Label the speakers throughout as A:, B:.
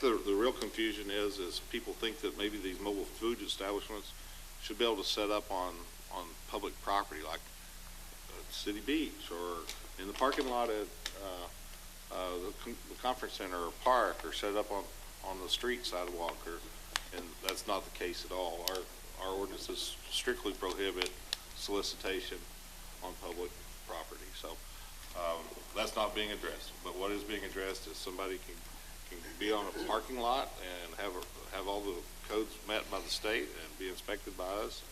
A: The, the real confusion is, is people think that maybe these mobile food establishments should be able to set up on, on public property, like uh, City Beach, or in the parking lot at, uh, uh, the con- the conference center or park, or set up on, on the street sidewalk, or, and that's not the case at all. Our, our ordinances strictly prohibit solicitation on public property, so, um, that's not being addressed. But what is being addressed is somebody can can be on a parking lot and have, a- have all the codes met by the state and be inspected by us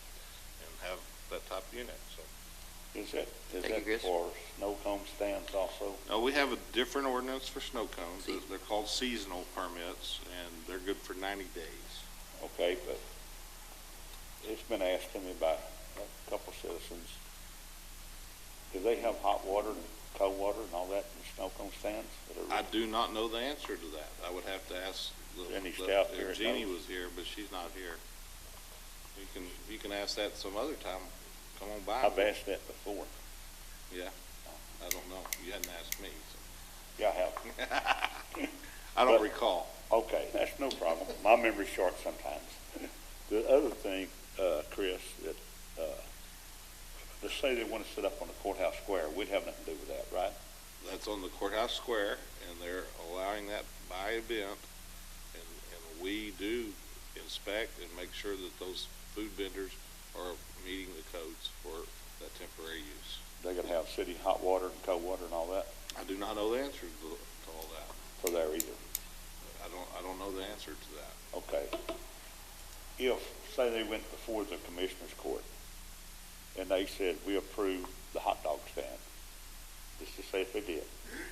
A: and have that type of unit, so.
B: Is that, is
C: Thank you,
B: that
C: Chris.
B: for snow cone stands also?
A: Now, Uh, we have a different ordinance for snow cones. They're- They're called seasonal permits and they're good for ninety days.
B: Okay, but it's been asked to me by a couple citizens, do they have hot water and cold water and all that in snow cone stands?
A: I do not know the answer to that. I would have to ask the.
B: Jenny
A: the-
B: Stout here
A: if Jeannie
B: knows.
A: was here, but she's not here. You can, you can ask that some other time. Come on by.
B: I've asked that before.
A: Yeah. I don't know. You hadn't asked me,
B: Yeah, I have.
A: so. I don't
B: But-
A: recall.
B: Okay, that's no problem. My memory's short sometimes. The other thing, uh, Chris, that, uh, let's say they want to sit up on the courthouse square, we'd have nothing to do with that, right?
A: that's on the courthouse square, and they're allowing that by event. And, and we do inspect and make sure that those food vendors are meeting the codes for that temporary use.
B: They're gonna have city hot water and cold water and all that
A: I do not know the answer to, to all that.
B: for there either.
A: I don't, I don't know the answer to that.
B: Okay. If, say they went before the commissioner's court and they said, we approve the hot dog stand, let's just say if they did,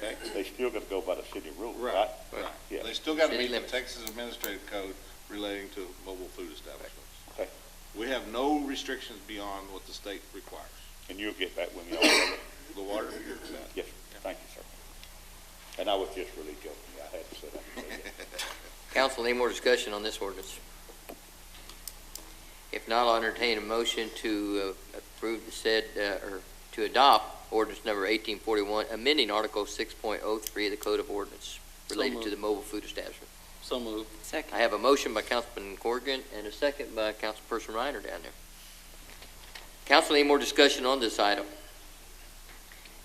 A: Okay?
B: they still gotta go by the city rules,
A: Right,
B: right?
A: right.
B: Yeah.
A: They still got to
C: City
A: meet the
C: limits.
A: Texas Administrative Code relating to mobile food establishments.
B: Okay.
A: We have no restrictions beyond what the state requires.
B: And you'll get back with me on that.
A: The water, you're set.
B: Yes, sir. thank you, sir. And I was just really joking, I had to sit up and say that.
C: Council, any more discussion on this ordinance? If not, I'll entertain a motion to uh, approve the said, uh, or to adopt ordinance number 1841, amending Article 6.03 of the Code of Ordinance related to the mobile food establishment.
D: So moved.
C: I have a motion by Councilman Corrigan and a second by Councilperson Reiner down there. Council, any more discussion on this item?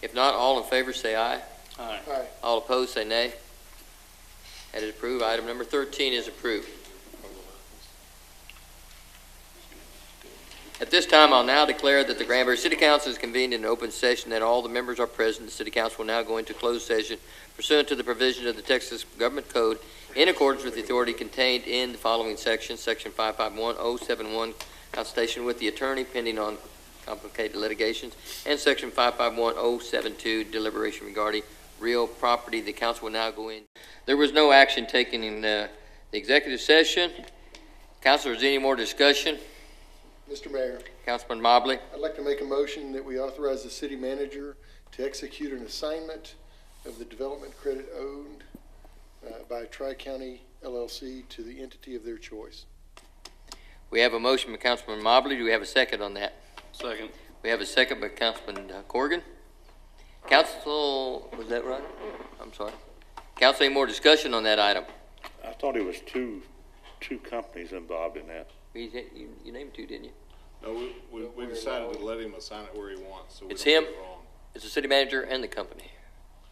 C: If not, all in favor say aye.
D: Aye.
C: All opposed, say nay. That is approved. Item number 13 is approved. At this time, I'll now declare that the Granbury City Council is convened in open session, that all the members are present. The City Council will now go into closed session pursuant to the provision of the Texas Government Code in accordance with the authority contained in the following section, Section 551071, consultation with the attorney pending on complicated litigations, and Section 551072, deliberation regarding real property. The council will now go in. There was no action taken in uh, the executive session. Council, is there any more discussion?
E: Mr. Mayor,
C: Councilman Mobley,
E: I'd like to make a motion that we authorize the city manager to execute an assignment of the development credit owned uh, by Tri-County LLC to the entity of their choice.
C: we have a motion by Councilman Mobley. Do we have a second on that?
D: Second.
C: We have a second by Councilman uh, Corrigan. Council, was that right? I'm sorry. Council, any more discussion on that item?
B: I thought it was two, two companies involved in that.
C: You you- you named two, didn't you?
A: No, we, we, we decided to let him assign it where he wants, so we
C: It's
A: don't get
C: him.
A: it wrong.
C: It's the city manager and the company.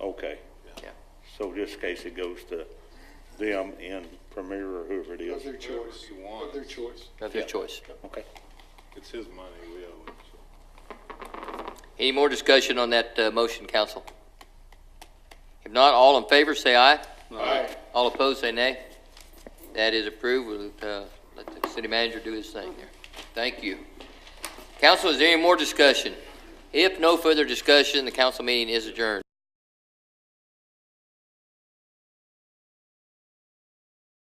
B: Okay.
C: Yeah.
B: So this case, it goes to them and Premier or whoever it
E: Of
B: is.
E: their choice.
A: Whoever you want.
E: Of their choice.
C: That's his
B: Yeah.
C: choice.
B: Okay.
A: It's his money, we owe it, so.
C: Any more discussion on that uh, motion, council? If not, all in favor, say aye.
E: Aye.
C: All opposed, say nay. That is approved. We'll uh, let the city manager do his thing here. Thank you. Council, is there any more discussion? If no further discussion, the council meeting is adjourned.